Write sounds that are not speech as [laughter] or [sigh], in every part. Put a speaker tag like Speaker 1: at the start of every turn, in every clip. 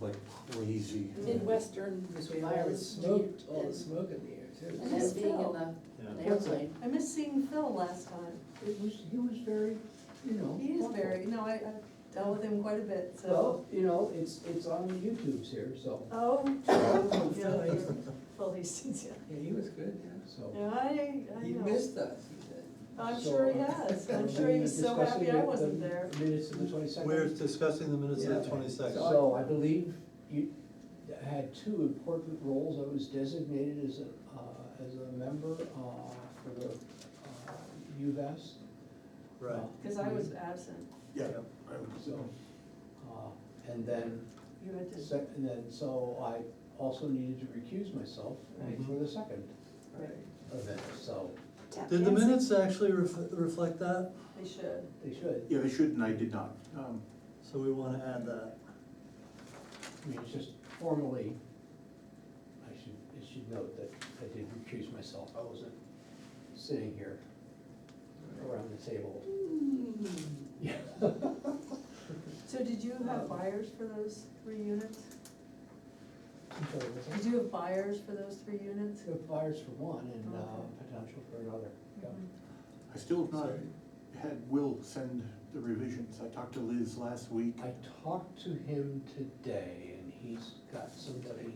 Speaker 1: like crazy.
Speaker 2: Midwestern
Speaker 3: Because we have all the
Speaker 2: virus.
Speaker 3: smoke, all the
Speaker 2: and-
Speaker 3: smoke in the air too.
Speaker 2: And then being in the
Speaker 1: Yeah.
Speaker 2: an airplane.
Speaker 4: I missed seeing Phil last time.
Speaker 5: It was, he was very, you know.
Speaker 4: He is
Speaker 5: thoughtful.
Speaker 4: very, no, I, I've dealt with him quite a bit, so.
Speaker 5: Well, you know, it's, it's on YouTube's here, so,
Speaker 4: Oh,
Speaker 3: Oh, Phil
Speaker 4: yeah, you're-
Speaker 3: Hastings.
Speaker 4: Phil Hastings, yeah.
Speaker 3: Yeah, he was good, yeah.
Speaker 5: so.
Speaker 4: No, I, I
Speaker 3: He
Speaker 4: know.
Speaker 3: missed us, he did.
Speaker 4: I'm
Speaker 5: So,
Speaker 4: sure he
Speaker 5: uh, [laughs]
Speaker 4: has. I'm
Speaker 5: uh,
Speaker 4: sure he was so
Speaker 5: discussing
Speaker 4: happy I
Speaker 5: the-
Speaker 4: wasn't
Speaker 5: the
Speaker 4: there.
Speaker 5: Minutes of the twenty-second.
Speaker 1: We're discussing the minutes of the twenty-second.
Speaker 5: So I believe you had two important roles. I was designated as a, uh, as a member, uh, for the, uh, UVest.
Speaker 1: Right.
Speaker 4: Cause I was absent.
Speaker 6: Yeah.
Speaker 5: So, uh, and then,
Speaker 4: You had to,
Speaker 5: sec- and then, so I also needed to recuse myself
Speaker 1: Right.
Speaker 5: for the second
Speaker 4: right,
Speaker 5: event, so
Speaker 1: Did the minutes actually ref- reflect that?
Speaker 4: they should.
Speaker 5: they should.
Speaker 6: Yeah, they should, and I did not. Um,
Speaker 1: So we wanna add that.
Speaker 5: I mean, it's just formally, I should, I should note that I did recuse myself, I wasn't sitting here around the table. [laughs] Yeah.
Speaker 4: So did you have buyers for those three units? Did
Speaker 5: The
Speaker 4: you have buyers for those three units?
Speaker 5: flyers for one and uh,
Speaker 4: Okay. Mm-hmm.
Speaker 5: potential for another. Yeah.
Speaker 6: I still have not had Will send the revisions. I talked to Liz last week.
Speaker 5: I talked to him today and he's got somebody,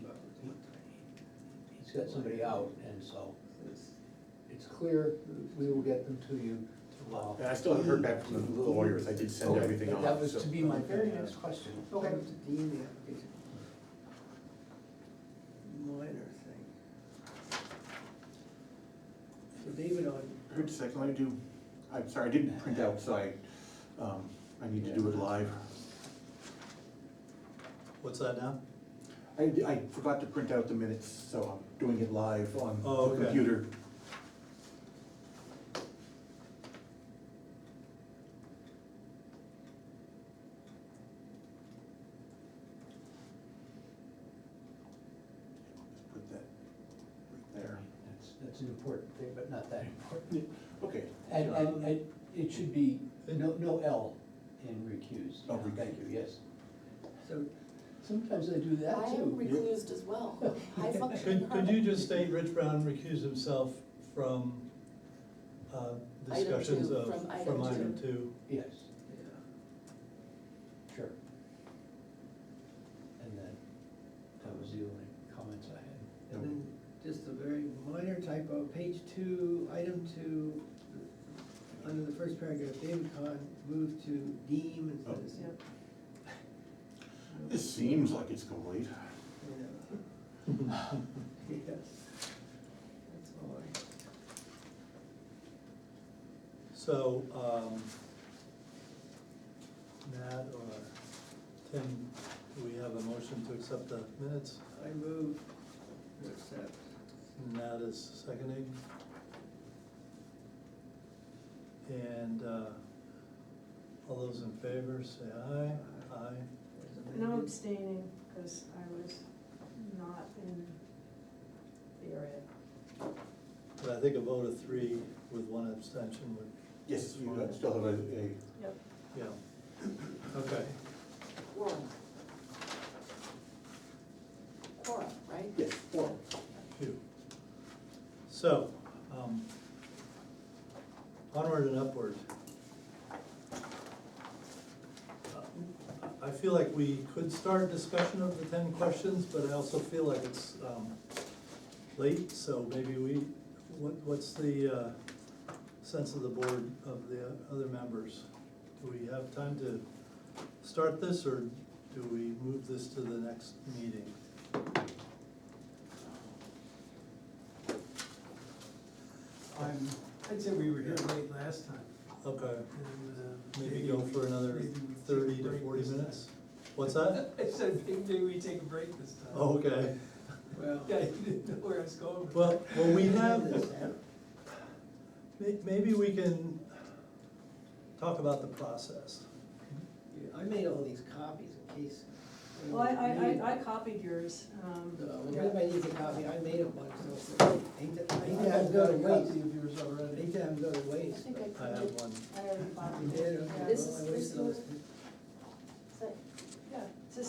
Speaker 5: he's got somebody out and so it's clear we will get them to you. uh,
Speaker 6: And I still haven't heard back from the lawyers. I did send
Speaker 5: Okay,
Speaker 6: everything
Speaker 5: but
Speaker 6: off.
Speaker 5: That was
Speaker 6: so-
Speaker 5: to be my very next question.
Speaker 3: That was the D in the application. Minor thing. So David on,
Speaker 6: Wait a second, let me do, I'm sorry, I didn't print out, so I, um, I need to do it live.
Speaker 1: What's that now?
Speaker 6: I, I forgot to print out the minutes, so I'm doing it live on
Speaker 1: Oh,
Speaker 6: the
Speaker 1: okay.
Speaker 6: computer. Just Put that right there.
Speaker 5: That's, that's an important thing, but not that important.
Speaker 6: Yeah, Okay.
Speaker 5: And, and, and it should be, no, no L in recused.
Speaker 6: Oh,
Speaker 5: Thank you,
Speaker 6: recused.
Speaker 5: yes.
Speaker 3: so
Speaker 5: Sometimes I do
Speaker 2: I
Speaker 5: that
Speaker 2: am
Speaker 5: too.
Speaker 2: reclused as
Speaker 3: [laughs]
Speaker 2: well. I function.
Speaker 1: Could, could you just state Rich Brown recused himself from, uh,
Speaker 2: Item
Speaker 1: discussions
Speaker 2: two,
Speaker 1: of,
Speaker 2: from item
Speaker 1: from item
Speaker 2: two.
Speaker 1: two?
Speaker 5: Yes,
Speaker 3: Yeah,
Speaker 5: sure. And then, that was the only comments I had.
Speaker 3: and then just a very minor typo, page two, item two, under the first paragraph, David Kahn moved to deem instead of.
Speaker 4: Yep.
Speaker 6: This seems like it's complete.
Speaker 3: Yeah. Yes, that's all I.
Speaker 1: So, um, Matt or Tim, do we have a motion to accept the minutes?
Speaker 3: I move to accept.
Speaker 1: Matt is seconding. And, uh, all those in favor, say aye. Aye.
Speaker 3: as
Speaker 4: And I'm
Speaker 3: amended.
Speaker 4: abstaining because I was not in the area.
Speaker 1: But I think a vote of three with one abstention would,
Speaker 6: Yes, you uh, still have a, a
Speaker 4: Yep.
Speaker 1: yeah. Okay,
Speaker 2: Quorum. Quorum, right?
Speaker 6: Yes, four.
Speaker 1: phew. So, um, onward and upward. Uh, I feel like we could start discussion of the ten questions, but I also feel like it's, um, late, so maybe we, what, what's the, uh, sense of the board of the other members? Do we have time to start this, or do we move this to the next meeting?
Speaker 7: I'm, I'd say we were here late last time,
Speaker 1: Okay,
Speaker 7: and, uh.
Speaker 1: maybe go
Speaker 7: we-
Speaker 1: for another
Speaker 7: maybe we take
Speaker 1: thirty
Speaker 7: a
Speaker 1: to
Speaker 7: break
Speaker 1: forty
Speaker 7: this time.
Speaker 1: minutes? What's that?
Speaker 7: [laughs] I said, maybe we take a break this time.
Speaker 1: Oh, Okay,
Speaker 3: Well.
Speaker 7: [laughs] Yeah, you didn't know where I was going. with
Speaker 1: well, well, we have,
Speaker 3: This app.
Speaker 1: may- maybe we can talk about the process.
Speaker 3: I made all these copies in case.
Speaker 4: Well, I, I, I, I copied yours, um,
Speaker 3: No, if
Speaker 4: yeah.
Speaker 3: anybody needs a copy, I made a bunch, so hate to, hate to have them
Speaker 7: I've got
Speaker 3: go
Speaker 7: a
Speaker 3: to
Speaker 7: copy
Speaker 3: waste.
Speaker 7: of yours already.
Speaker 3: Hate to have them go to
Speaker 2: I
Speaker 3: waste.
Speaker 2: think I
Speaker 1: I have
Speaker 2: printed,
Speaker 1: one,
Speaker 4: I already copied
Speaker 3: You
Speaker 4: it.
Speaker 3: did, okay,
Speaker 4: yeah.
Speaker 2: This
Speaker 3: well,
Speaker 2: is-
Speaker 3: I wasted
Speaker 2: this
Speaker 3: all
Speaker 2: is-
Speaker 3: this-